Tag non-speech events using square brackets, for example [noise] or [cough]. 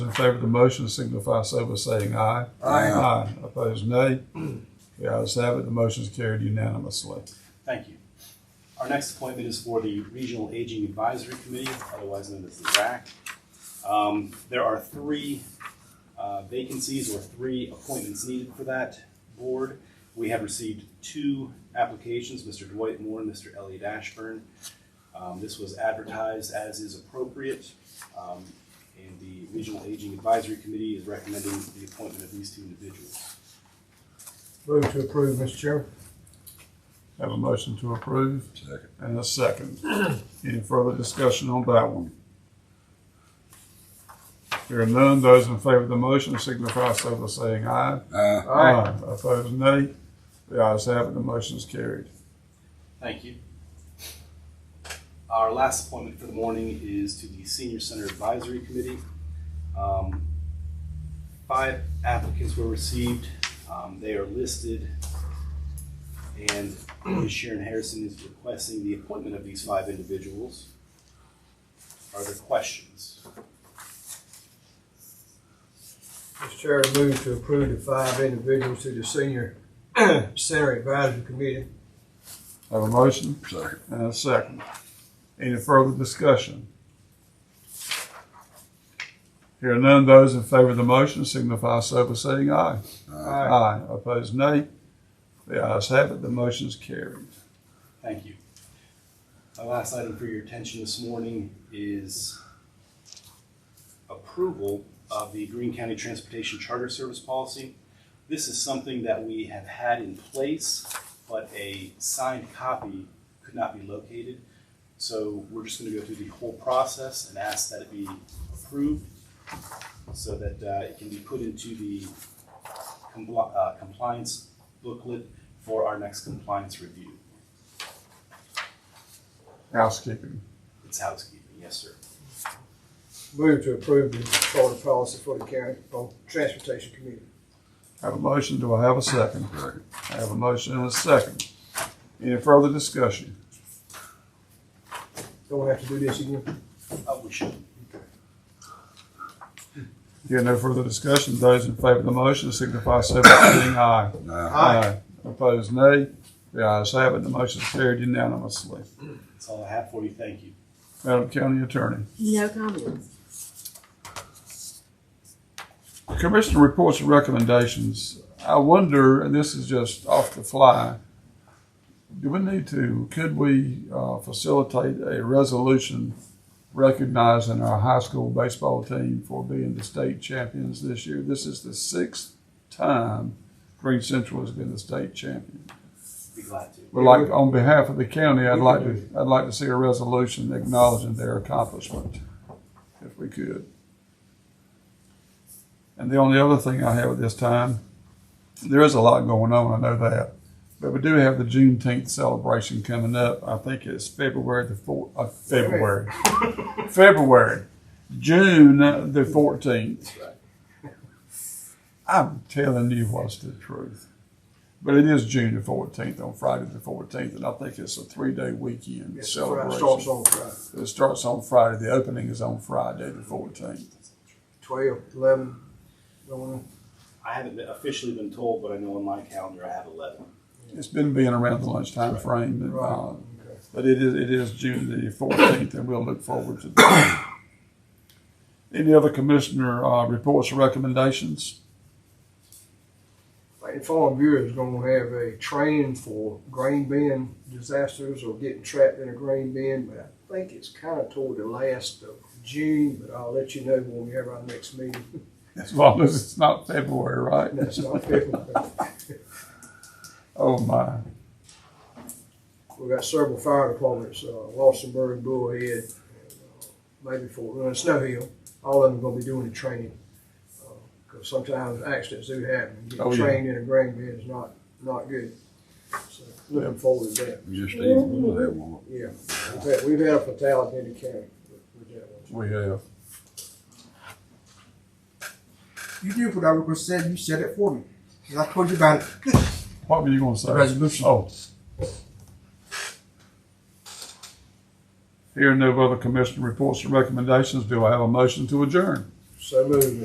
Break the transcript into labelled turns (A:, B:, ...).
A: in favor of the motion signify so by saying aye.
B: Aye.
A: Aye. Opposed, nay. The ayes have it. The motion is carried unanimously.
C: Thank you. Our next appointment is for the Regional Aging Advisory Committee, otherwise known as the RAC. Um, There are three uh, vacancies or three appointments needed for that board. We have received two applications, Mr. Dwight Moore and Mr. Elliot Ashburn. Um, This was advertised as is appropriate. um, And the Regional Aging Advisory Committee is recommending the appointment of these two individuals.
D: Move to approve, Mr. Chairman.
A: Have a motion to approve
B: Second.
A: and a second. Any further discussion on that one? Here are none. Those in favor of the motion signify so by saying aye.
B: Aye.
A: Aye. Opposed, nay. The ayes have it. The motion is carried.
C: Thank you. Our last appointment for the morning is to the Senior Center Advisory Committee. Um, Five applicants were received. Um, They are listed. And [clears throat] Ms. Sharon Harrison is requesting the appointment of these five individuals. Are there questions?
D: Mr. Chairman, move to approve the five individuals to the Senior [clears throat] Center Advisory Committee.
A: Have a motion?
B: Second.
A: And a second. Any further discussion? Here are none. Those in favor of the motion signify so by saying aye.
D: Aye.
A: Aye. Opposed, nay. The ayes have it. The motion is carried.
C: Thank you. My last item for your attention this morning is approval of the Green County Transportation Charter Service Policy. This is something that we have had in place, but a signed copy could not be located. So we're just gonna go through the whole process and ask that it be approved so that uh, it can be put into the compli- uh, compliance booklet for our next compliance review.
A: Housekeeping.
C: It's housekeeping, yes, sir.
D: Move to approve the charter policy for the county, for Transportation Committee.
A: Have a motion. Do I have a second?
B: Second.
A: I have a motion and a second. Any further discussion?
D: Don't have to do this again.
C: Oh, we should.
A: Here no further discussion. Those in favor of the motion signify so by saying aye.
B: Aye.
A: Aye. Opposed, nay. The ayes have it. The motion is carried unanimously.
C: That's all I have for you. Thank you.
A: Madam County Attorney.
E: No comments.
A: Commissioner reports and recommendations. I wonder, and this is just off the fly, do we need to, could we uh, facilitate a resolution recognizing our high school baseball team for being the state champions this year? This is the sixth time Green Central has been the state champion.
C: Be glad to.
A: But like, on behalf of the county, I'd like to, I'd like to see a resolution acknowledging their accomplishment, if we could. And the only other thing I have at this time, there is a lot going on, I know that. But we do have the Juneteenth celebration coming up. I think it's February the four, uh, February. February. June the fourteenth. I'm telling you what's the truth. But it is June the fourteenth on Friday the fourteenth, and I think it's a three-day weekend
D: Yes, Friday, Starts
A: celebration.
D: on Friday,
A: It starts on Friday. The opening is on Friday the fourteenth.
D: twelve, eleven, going on.
C: I haven't been- officially been told, but I know on my calendar I have 11.
A: It's been being around the lunchtime frame, and, uh,
D: Right. Okay.
A: but it is it is June the fourteenth, and we'll look forward to that. Any other commissioner uh, reports or recommendations?
D: Like, the Farm Bureau is gonna have a training for grain bin disasters or getting trapped in a grain bin, but I think it's kinda toward the last of June, but I'll let you know when we have our next meeting. [laughs]
A: As long as it's not February, right?
D: That's not February.
A: Oh my.
D: We've got several fire departments, uh, Lawsonburg, Bullhead, and, uh, maybe Fort Run, Snow Hill. All of them gonna be doing the training. Because sometimes accidents do happen.
A: Oh,
D: Getting
A: yeah.
D: trained in a grain bin is not, not good. So Looking forward to that,
B: We just need one of that one.
D: yeah. We've had, we've had a fatality in the county with- with that one.
A: We have.
F: You did what I was going to say. You said it for me. 'Cause I told you about it.
A: What were you gonna say?
F: Resolution.
A: Oh. Here no other commissioner reports or recommendations. Do I have a motion to adjourn?
D: So moved.